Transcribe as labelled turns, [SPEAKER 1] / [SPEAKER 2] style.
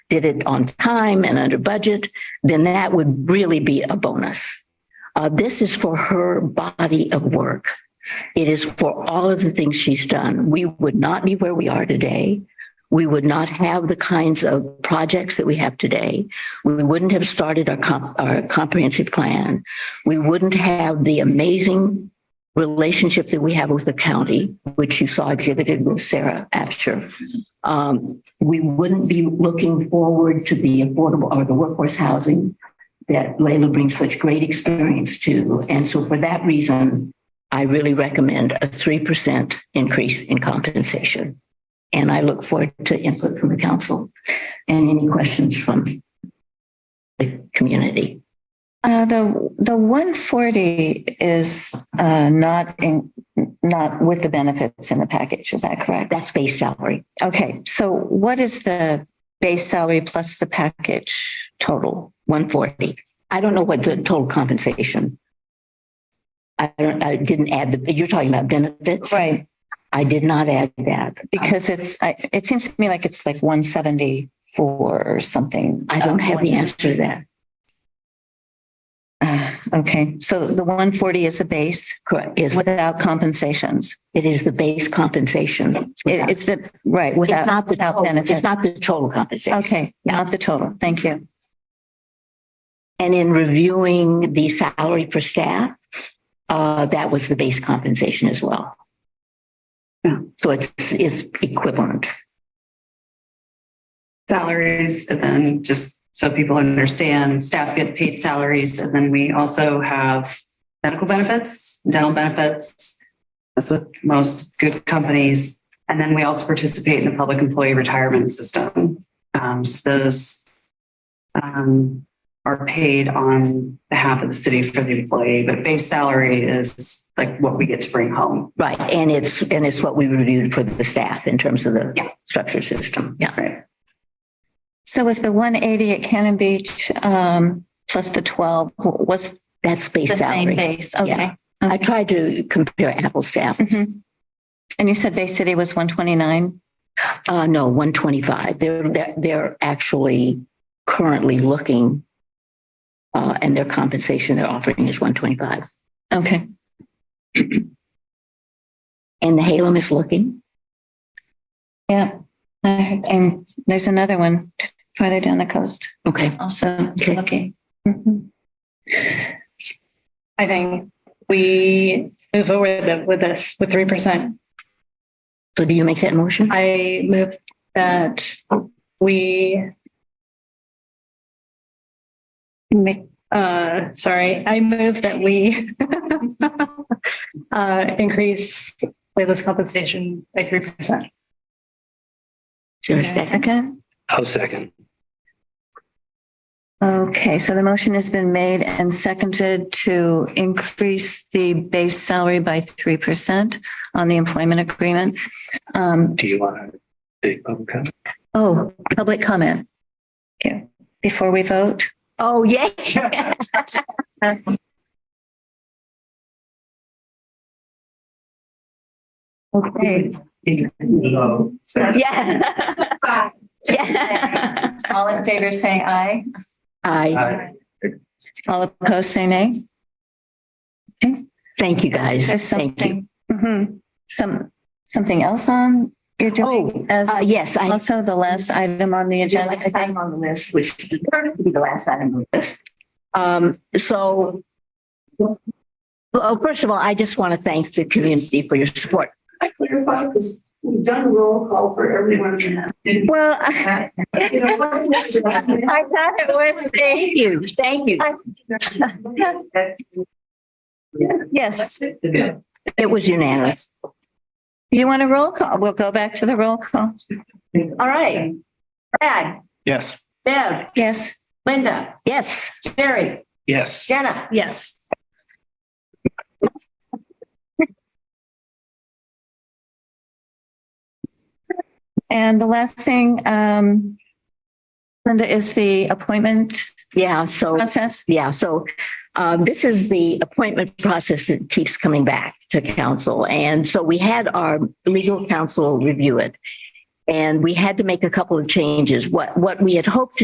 [SPEAKER 1] did it on time and under budget, then that would really be a bonus. Uh, this is for her body of work. It is for all of the things she's done. We would not be where we are today. We would not have the kinds of projects that we have today. We wouldn't have started our, comp- our comprehensive plan. We wouldn't have the amazing relationship that we have with the county, which you saw exhibited with Sarah Absher. Um, we wouldn't be looking forward to the affordable or the workforce housing that Layla brings such great experience to. And so for that reason, I really recommend a 3% increase in compensation. And I look forward to input from the council and any questions from the community.
[SPEAKER 2] Uh, the, the one forty is, uh, not in, not with the benefits in the package, is that correct?
[SPEAKER 1] That's base salary.
[SPEAKER 2] Okay, so what is the base salary plus the package total?
[SPEAKER 1] 140. I don't know what the total compensation. I don't, I didn't add the, you're talking about benefits?
[SPEAKER 2] Right,
[SPEAKER 1] I did not add that.
[SPEAKER 2] because it's, I, it seems to me like it's like one seventy-four or something.
[SPEAKER 1] I don't have the answer to that.
[SPEAKER 2] Uh, Okay, so the one forty is the base
[SPEAKER 1] Correct. Is,
[SPEAKER 2] without compensations.
[SPEAKER 1] it is the base compensation.
[SPEAKER 2] It, it's the, right,
[SPEAKER 1] It's
[SPEAKER 2] without,
[SPEAKER 1] not the,
[SPEAKER 2] without
[SPEAKER 1] total- it's
[SPEAKER 2] benefits.
[SPEAKER 1] not the total compensation.
[SPEAKER 2] Okay,
[SPEAKER 1] Yeah.
[SPEAKER 2] not the total, thank you.
[SPEAKER 1] And in reviewing the salary for staff, uh, that was the base compensation as well.
[SPEAKER 3] Yeah.
[SPEAKER 1] So it's, it's equivalent.
[SPEAKER 3] salaries and then just so people understand, staff get paid salaries and then we also have medical benefits, dental benefits. That's with most good companies. And then we also participate in the public employee retirement system. Um, so those um, are paid on behalf of the city for the employee, but base salary is like what we get to bring home.
[SPEAKER 1] Right. And it's, and it's what we reviewed for the staff in terms of
[SPEAKER 3] Yeah.
[SPEAKER 1] the structure system. Yeah.
[SPEAKER 3] Right.
[SPEAKER 2] So was the one eighty at Cannon Beach, um, plus the twelve, was
[SPEAKER 1] That's base
[SPEAKER 2] the same
[SPEAKER 1] salary.
[SPEAKER 2] base? Okay.
[SPEAKER 1] I tried to compare apples to apples.
[SPEAKER 2] Mhm. And you said Bay City was one twenty-nine?
[SPEAKER 1] Uh, no, 125. They're, they're, they're actually currently looking, uh, and their compensation they're offering is 125.
[SPEAKER 2] Okay.
[SPEAKER 1] And the Halem is looking.
[SPEAKER 2] Yeah. I heard- And there's another one farther down the coast
[SPEAKER 1] Okay.
[SPEAKER 2] also.
[SPEAKER 1] Okay.
[SPEAKER 2] Okay. Mhm.
[SPEAKER 4] I think we move forward with- with this, with 3%.
[SPEAKER 1] So do you make that motion?
[SPEAKER 4] I move that we,
[SPEAKER 2] Make-
[SPEAKER 4] uh, sorry, I move that we uh, increase Layla's compensation by 3%.
[SPEAKER 1] Is there a second?
[SPEAKER 2] Second.
[SPEAKER 5] I'll second.
[SPEAKER 2] Okay, so the motion has been made and seconded to increase the base salary by three percent on the employment agreement. Um,
[SPEAKER 5] Do you want to take public comment?
[SPEAKER 2] oh, public comment. Yeah, before we vote.
[SPEAKER 1] Oh, yay.
[SPEAKER 2] Okay.
[SPEAKER 1] Yeah. Yeah.
[SPEAKER 2] All in favor, say aye.
[SPEAKER 1] I,
[SPEAKER 5] Aye.
[SPEAKER 2] All opposed, say nay.
[SPEAKER 1] thank you guys.
[SPEAKER 2] There's
[SPEAKER 1] Thank you.
[SPEAKER 2] something, Mhm. some, something else on you're doing as
[SPEAKER 1] Uh, yes, I.
[SPEAKER 2] also the last item on the agenda. I think.
[SPEAKER 1] on the list, which deserves to be the last item on the list. Um, so. Well, first of all, I just want to thank the community for your support.
[SPEAKER 6] I clarify because we've done a roll call for everyone. You
[SPEAKER 2] Well, I
[SPEAKER 6] know, what's next?
[SPEAKER 2] I thought it was
[SPEAKER 1] Thank
[SPEAKER 2] the,
[SPEAKER 1] you, thank you.
[SPEAKER 2] yes.
[SPEAKER 1] It was unanimous.
[SPEAKER 2] You want a roll call? We'll go back to the roll call.
[SPEAKER 6] All right. Brad,
[SPEAKER 5] Yes.
[SPEAKER 6] Deb,
[SPEAKER 2] Yes.
[SPEAKER 6] Linda,
[SPEAKER 1] Yes.
[SPEAKER 6] Jerry,
[SPEAKER 5] Yes.
[SPEAKER 6] Jenna.
[SPEAKER 4] Yes.
[SPEAKER 2] And the last thing, um, Linda, is the appointment
[SPEAKER 1] Yeah, so.
[SPEAKER 2] process.
[SPEAKER 1] Yeah, so uh, this is the appointment process that keeps coming back to council. And so we had our legal counsel review it. And we had to make a couple of changes. What, what we had hoped to